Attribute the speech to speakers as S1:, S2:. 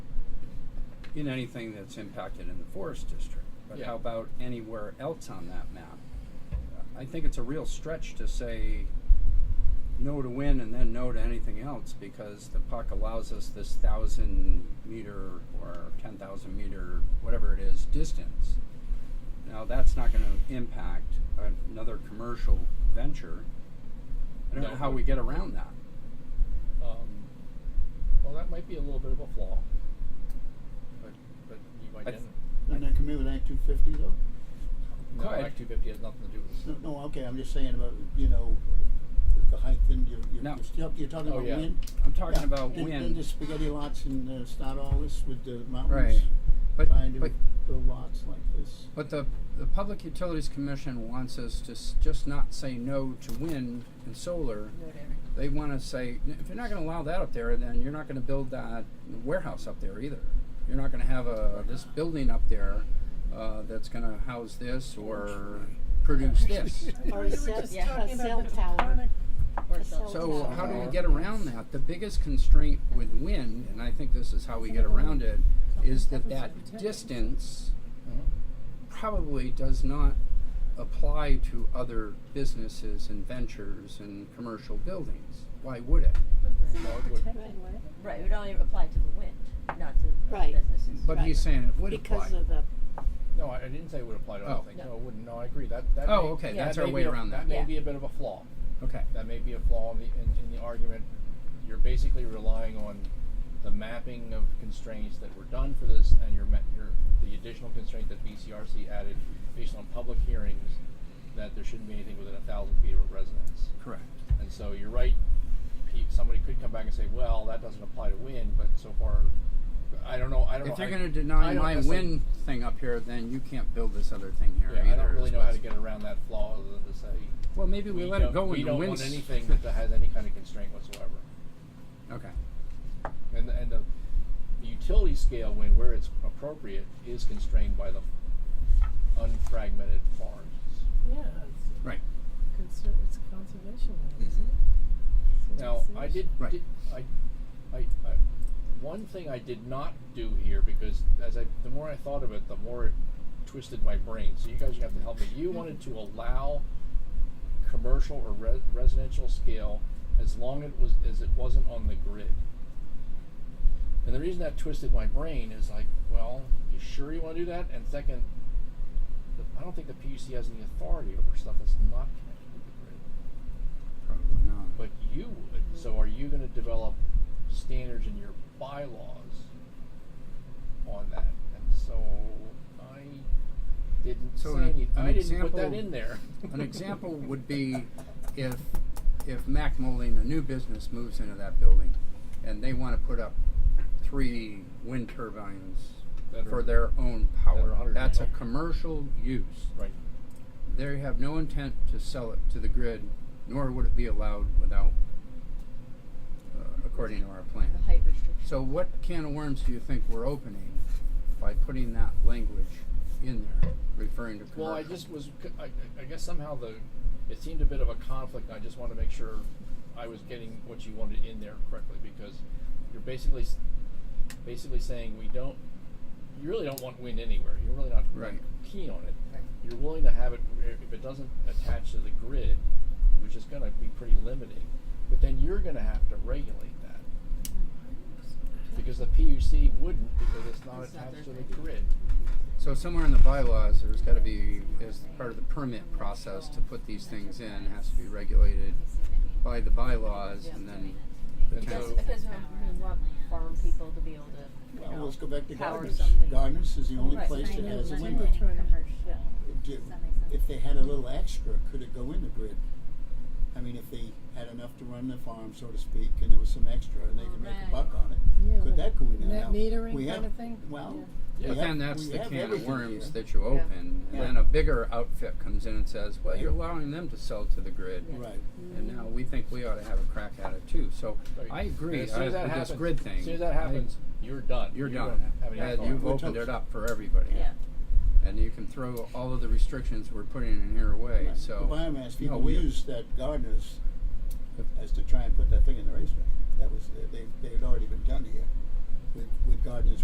S1: in anything that's impacted in the forest district. But
S2: Yeah.
S1: how about anywhere else on that map? I think it's a real stretch to say no to wind and then no to anything else because the puck allows us this thousand meter or ten thousand meter, whatever it is, distance. Now that's not going to impact another commercial venture. I don't
S2: No.
S1: know how we get around that.
S2: Um, well, that might be a little bit of a flaw, but but you might.
S1: I th-
S3: Wouldn't that come in with Act two fifty though?
S2: no,
S1: Could.
S2: Act 250 has nothing to do with
S3: No,
S2: this.
S3: no, okay, I'm just saying about, you know, the height and you, you,
S1: No.
S3: you're still- you're talking
S2: Oh,
S3: about
S2: yeah.
S3: wind?
S1: I'm talking
S3: Yeah,
S1: about
S3: and-
S1: wind.
S3: And the spaghetti lots and uh, start all this with the mountains.
S1: Right. But-
S3: Trying to
S1: but-
S3: build lots like this.
S1: But the, the Public Utilities Commission wants us to s- just not say no to wind and solar.
S4: whatever.
S1: They want to say, "N- if you're not going to allow that up there, then you're not going to build that warehouse up there either. You're not going to have a, this building up there uh, that's going to house this or produce this.
S5: Or a cell,
S4: yeah,
S5: a
S4: talking
S5: cell tower.
S4: Or
S5: A cell
S4: so.
S1: So how do we get around that? The biggest constraint with wind, and I think this is how we get around it, is that that distance Mm-hmm. probably does not apply to other businesses and ventures and commercial buildings. Why would it?
S2: No, it would-
S4: Right, it would only apply to the wind, not to
S5: Right.
S4: businesses.
S1: But he's saying it would apply.
S5: Because of the,
S2: no, I I didn't say it would apply to
S1: Oh.
S2: other things.
S4: No.
S2: No, it wouldn't. No, I agree. That that.
S1: Oh,
S2: may-
S1: okay,
S2: that
S1: that's
S2: may
S1: our
S2: be
S1: way
S2: a-
S1: around that.
S2: That may
S4: Yeah.
S2: be a bit of a flaw.
S1: okay.
S2: That may be a flaw in the in, in the argument. You're basically relying on the mapping of constraints that were done for this, and your ma- your the additional constraint that BCRC added based on public hearings that there shouldn't be anything within a thousand feet of a residence.
S1: Correct.
S2: And so you're right. pe- Somebody could come back and say, "Well, that doesn't apply to wind," but so far, I don't know. I don't know.
S1: If you're
S2: I-
S1: going to
S2: I
S1: deny
S2: don't
S1: my
S2: necessarily-
S1: wind thing up here, then you can't build this other thing here either.
S2: yeah, I don't really
S1: is
S2: know how
S1: what's-
S2: to get around that flaw other than to say
S1: Well, maybe we, let it
S2: don't-
S1: go
S2: We
S1: in the
S2: don't
S1: wind.
S2: want anything that has any kind of constraint whatsoever.
S1: okay.
S2: And the, and the utility scale wind, where it's appropriate, is constrained by the unfragmented forests.
S6: Yeah, it's,
S1: Right.
S6: conser- it's conservation land, isn't it?
S2: Now,
S6: So it's-
S2: I did,
S1: Right.
S2: did I, I, I, one thing I did not do here because as I, the more I thought of it, the more it twisted my brain. So you guys are gonna have to help me. You wanted to allow commercial or re- residential scale as long it was as it wasn't on the grid. And the reason that twisted my brain is like, well, you sure you want to do that? And second, the, I don't think the PUC has any authority over stuff that's not connected to the grid.
S1: Probably not.
S2: But you would. So are you going to develop standards in your bylaws on that? And so I didn't
S1: So
S2: say
S1: an-
S2: any,
S1: an
S2: I didn't put that
S1: example-
S2: in there.
S1: An example would be if if Mac Moline, a new business, moves into that building, and they want to put up three wind turbines
S2: That
S1: for
S2: are-
S1: their own
S2: that are
S1: power.
S2: 100
S1: That's a
S2: megawatt.
S1: commercial use.
S2: right.
S1: They have no intent to sell it to the grid, nor would it be allowed without, uh, according to our plan.
S4: The height restriction.
S1: So what can of worms do you think we're opening by putting that language in there, referring to commercial?
S2: Well, I just was. c- I, I- I guess somehow the it seemed a bit of a conflict. and I just wanted to make sure I was getting what you wanted in there correctly because you're basically s- basically saying we don't. You really don't want wind anywhere. You're really not
S1: Right.
S2: keen on it.
S4: Right.
S2: You're willing to have it where if it doesn't attach to the grid, which is going to be pretty limiting. But then you're going to have to regulate that
S4: Hmm.
S2: because the PUC wouldn't because it's not
S4: It's not
S2: attached to
S4: their
S2: the
S4: thing.
S2: grid.
S1: So somewhere in the bylaws, there's gotta be, as part of the permit process to put these things in, has to be regulated by the bylaws and then the
S2: And
S1: town.
S4: Because,
S2: so-
S4: because we want farm people to be able to, you
S3: Well,
S4: know,
S3: let's go back to
S4: power
S3: Gardner's.
S4: something.
S3: Gardner's is the only
S4: Right.
S3: place that has a
S6: Right.
S3: window.
S6: Right.
S3: Do- If they had a little extra, could it go in the grid? I mean, if they had enough to run the farm, so to speak, and there was some extra and they could make a
S4: Right.
S3: buck on
S6: Yeah,
S3: it, could
S6: like
S3: that go in there?
S6: net
S3: Now,
S6: metering
S3: we
S6: kind
S3: have-
S6: of thing?
S3: Well.
S6: Yeah.
S2: Yeah.
S3: we
S1: But
S3: have-
S1: then that's
S3: we
S1: the
S3: have
S1: can of
S3: everything
S1: worms
S3: here.
S1: that you open, and
S3: Yeah.
S1: then a bigger outfit comes in and says, well, you're
S3: Yeah.
S1: allowing them to sell to the grid.
S3: Right.
S1: And now we think we ought to have a crack at it too, so
S2: Right.
S1: I agree,
S2: As soon
S1: I,
S2: as
S1: with
S2: that
S1: this
S2: happens,
S1: grid thing.
S2: As soon as that
S1: I-
S2: happens, you're done.
S1: You're
S2: You
S1: done,
S2: don't have any
S1: and
S2: thought.
S1: you've
S3: We're
S1: opened
S3: toast.
S1: it up for everybody.
S4: yeah.
S1: And you can throw all of the restrictions we're putting in here away,
S3: Right.
S1: so.
S3: The biomass,
S1: no,
S3: people
S1: we-
S3: used that gardeners as to try and put that thing in the racetrack. That was, they, they had already been done here with, with gardeners